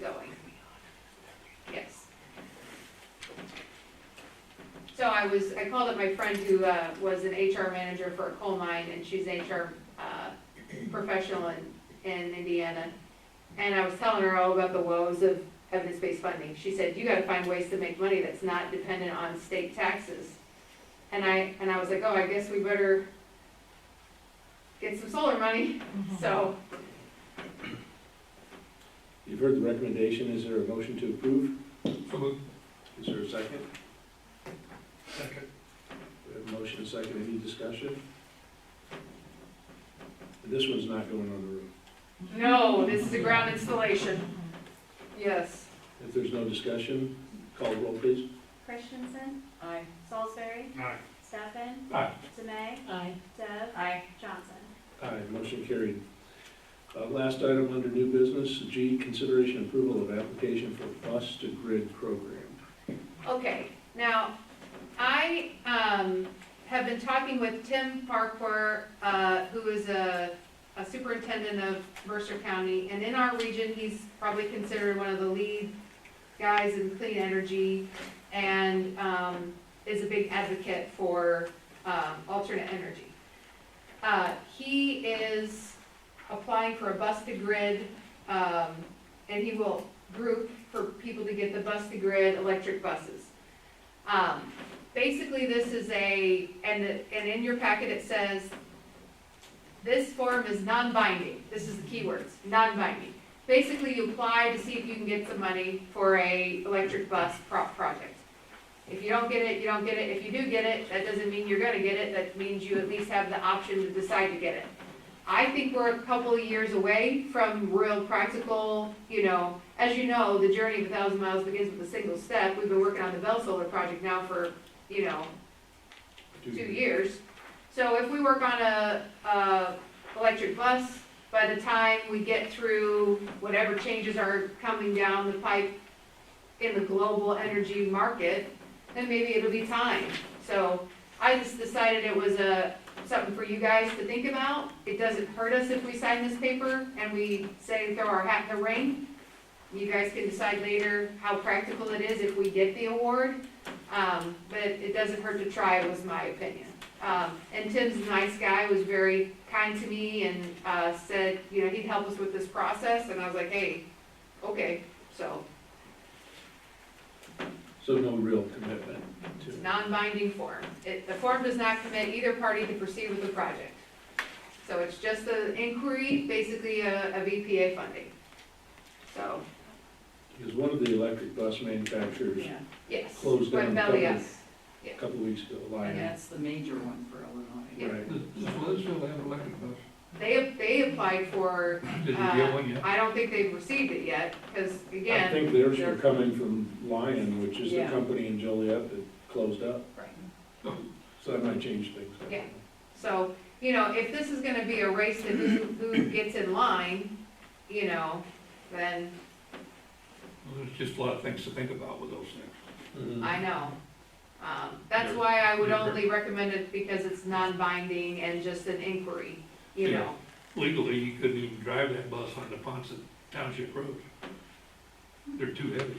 going. Yes. So I was, I called up my friend who uh, was an HR manager for a coal mine, and she's an HR uh, professional in, in Indiana. And I was telling her all about the woes of evidence-based funding. She said, you gotta find ways to make money that's not dependent on state taxes. And I, and I was like, oh, I guess we better get some solar money, so. You've heard the recommendation, is there a motion to approve? So moved. Is there a second? Second. We have a motion and a second, any discussion? This one's not going on the roof. No, this is a ground installation. Yes. If there's no discussion, call roll please. Christensen, Aye. Salisbury, Aye. Stefan, Aye. Demae, Aye. Deb, Aye. Johnson. Aye, motion carried. Uh, Last item under new business, G, consideration approval of application for bus to grid program. Okay, now, I, um, have been talking with Tim Parker, uh, who is a, a superintendent of Mercer County, and in our region, he's probably considered one of the lead guys in clean energy, and, um, is a big advocate for, um, alternate energy. Uh, he is applying for a bus to grid, um, and he will group for people to get the bus to grid electric buses. Um, Basically, this is a, and, and in your packet it says, this form is non-binding, this is the key words, non-binding. Basically, you apply to see if you can get some money for a electric bus prop project. If you don't get it, you don't get it, if you do get it, that doesn't mean you're gonna get it, that means you at least have the option to decide to get it. I think we're a couple of years away from real practical, you know, as you know, the journey of a thousand miles begins with a single step. We've been working on the Bell Solar project now for, you know, Do- two years. So if we work on a, a electric bus, by the time we get through whatever changes are coming down the pipe in the global energy market, then maybe it'll be time. So I just decided it was a, something for you guys to think about. It doesn't hurt us if we sign this paper and we say throw our hat in the ring. You guys can decide later how practical it is if we get the award. Um, but it doesn't hurt to try, was my opinion. Um, and Tim's a nice guy, was very kind to me and, uh, said, you know, he'd help us with this process, and I was like, hey, okay, so, So no real commitment to. it's non-binding form. It, the form does not commit either party to proceed with the project. So it's just an inquiry, basically a, of EPA funding. So, Because one of the electric bus manufacturers, yes. Closed down Went belly up. company. a couple of weeks ago, And Lion, that's the major one for Illinois. right? Does does Leadville have electric bus? They, they applied for, Did you Uh, get one yet? I don't think they've received it yet, because I again, think theirs they're- were coming from Lion, which is the Yeah. company in Joliet that closed up, so that might change things. I don't Yeah. know. So, you know, if this is gonna be a race to who, who gets in line, you know, then, Well, There's just a lot of things to think about with those things. I know. Um, that's why I would only recommend it because it's non-binding and just an inquiry, you know? Legally, you couldn't even drive that bus on the Ponson Township Road. They're too heavy.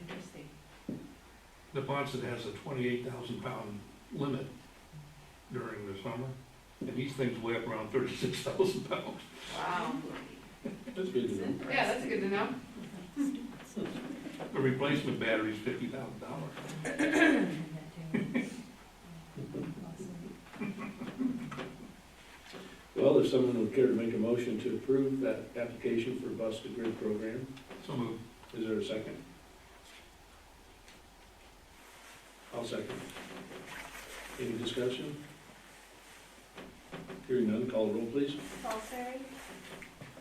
Interesting. The Ponson has a twenty-eight thousand pound limit during the summer, and these things weigh up around thirty-six thousand pounds. Wow. That's good to know. Yeah, that's good to know. The replacement battery's fifty thousand dollars. Well, if someone would care to make a motion to approve that application for bus to grid program, So moved. is there a second? I'll second. Any discussion? Hearing none, call the roll please. Salisbury,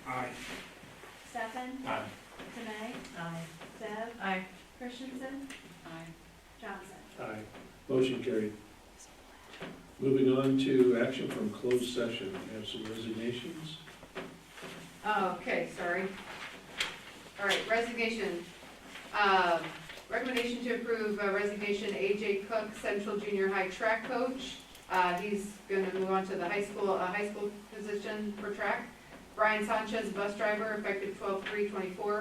Aye. Stefan, Aye. Demae, Aye. Deb, Aye. Christensen, Aye. Johnson. Aye. Motion carried. Moving on to action from closed session, we have some resignations. Oh, okay, sorry. All right, resignation. Um, Recommendation to approve uh, resignation AJ Cook, Central Junior High Track Coach. Uh, He's going to move on to the high school, uh, high school position for track. Brian Sanchez, Bus Driver, effective 12/3/24.